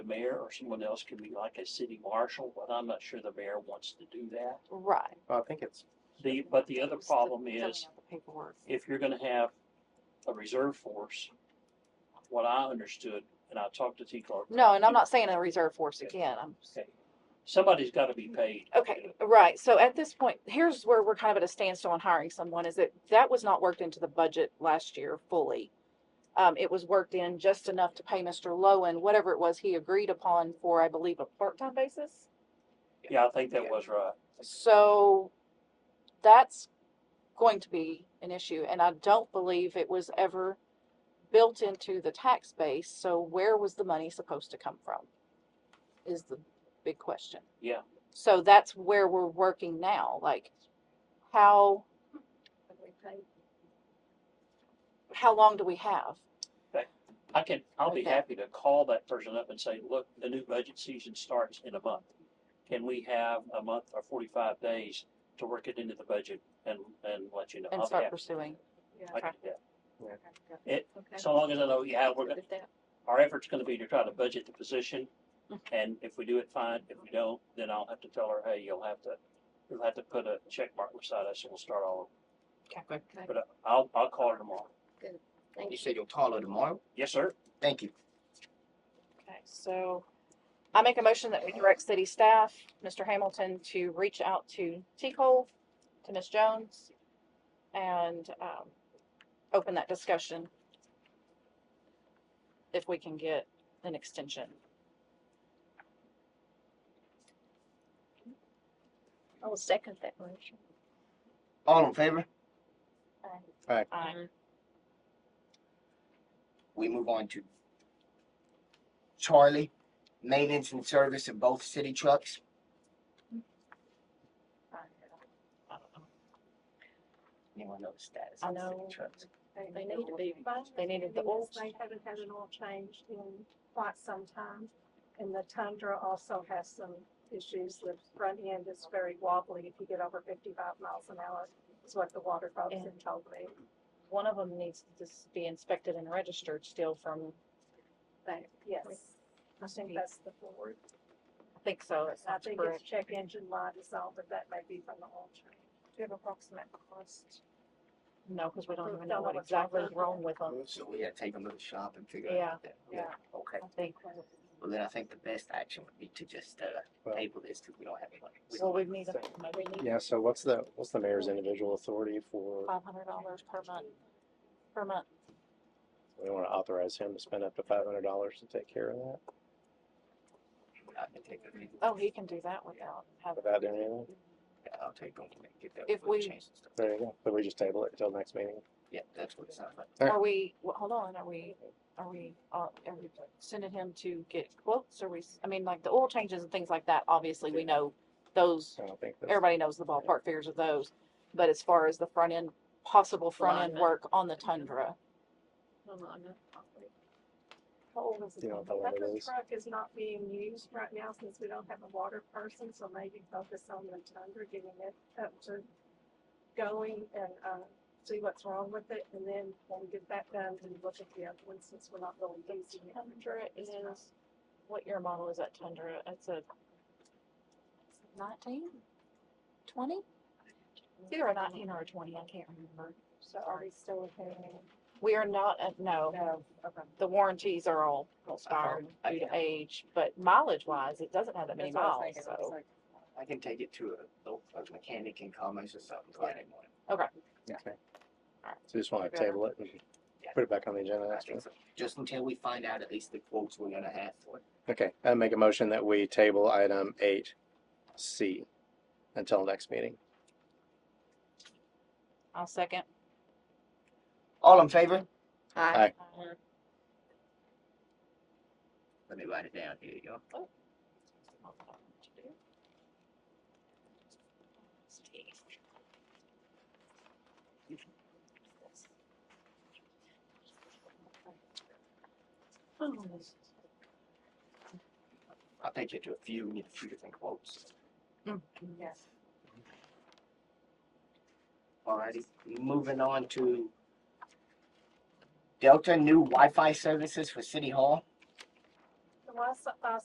mayor or someone else could be like a city marshal, but I'm not sure the mayor wants to do that. Right. Well, Uh, I think it's, The, but the other It's the problem filling is out the Paperwork. if you're gonna have a reserve force, what I understood, and I talked to T Clark. No, and I'm not saying a reserve force again. I'm, Okay, Somebody's gotta be paid. to do okay, it. right. So at this point, here's where we're kind of at a standstill on hiring someone is that that was not worked into the budget last year fully. Um, it was worked in just enough to pay Mr. Lowen, whatever it was he agreed upon for, I believe, a part-time basis. Yeah, I think that was right. So that's going to be an issue, and I don't believe it was ever built into the tax base, so where was the money supposed to come from? Is the big question. Yeah. So that's where we're working now, like, how, how long do we have? I can, I'll be Okay. happy to call that person up and say, look, the new budget season starts in a month. Can we have a month or forty-five days to work it into the budget and, and let you know? And I'll be start happy. pursuing. I can do It, that. So long as I know, yeah, we're, gonna- our effort's gonna be to try to budget the position. And if we do it, fine. If we don't, then I'll have to tell her, hey, you'll have to, you'll have to put a check mark beside us and we'll start all Okay. over. But I'll, I'll call her tomorrow. you said you'll call her tomorrow? Yes, sir? Thank you. Okay, so I make a motion that we direct city staff, Mr. Hamilton, to reach out to T. Cole, to Ms. Jones, and um, open that discussion if we can get an extension. I'll second that motion. All in favor? I We move on to Charlie, maintenance and service of both city trucks. Anyone know the status I of the know. city trucks? They need to be. They needed the oil. They haven't had an oil change in quite some time. And the Tundra also has some issues. The front end is very wobbly if you get over fifty-five miles an hour, is what the water folks Yeah. have told me. One of them needs to just be inspected and registered still from, But yes, I think that's the Ford. I think so. that I sounds think correct. it's check engine light is all, but that may be from the oil change. Do you have approximate cost? No, because we don't We even know don't know what what's exactly wrong is with wrong with them. So we gotta take them to the shop and figure Yeah, out. that. yeah. Okay, I think, well then I think the best action would be to just, uh, Well- table this, cause we don't have any money. We well, don't- we need, a- we need Yeah, so what's the, what's the mayor's individual authority for, five hundred dollars per month, per month. we wanna authorize him to spend up to five hundred dollars to take care of that, I can uh, take them. Oh, he can do that without having, without doing anything? Yeah, I'll take them, and get that. If oil we- change and stuff. There you go, but we just table it until next meeting. Yeah, that's what it sounds like. Alright. are we, well, hold on, are we, are we, uh, are we sending him to get quotes? Are we, s- I mean, like the oil changes and things like that, obviously, we know those, I don't think that's, everybody knows the ballpark figures of those. But as far as the front end, possible front end Alignment. work on the Tundra, How old is you know, what it? the one That it is. truck is not being used right now since we don't have a water person, so maybe focus on the tundra, getting it up to going and, uh, see what's wrong with it, and then when we get that done, then look at the other one since we're not really using it. Tundra is, what year model is that Tundra? It's a nineteen, twenty? It's either a nineteen or a twenty, I can't remember. So are we still paying? We are not, uh, no, No, okay. the warranties are all expired I due to can- age, but mileage wise, it doesn't have that many That's what I was miles, thinking. I was so. like, I can take it to a, a mechanic in Commerce or something Friday morning. Okay. So just wanna Okay. table it and Yeah. put it back on the agenda I next think week. so. Just until we find out at least the quotes we're gonna have for it. Okay, I make a motion that we table item eight C until next meeting. I'll second. All in favor? Aye. Let me write it down. Here you go. I'll take you to a few, we need a few different quotes. Yes. Alrighty, moving on to Delta new Wi-Fi services for City Hall. The last, uh,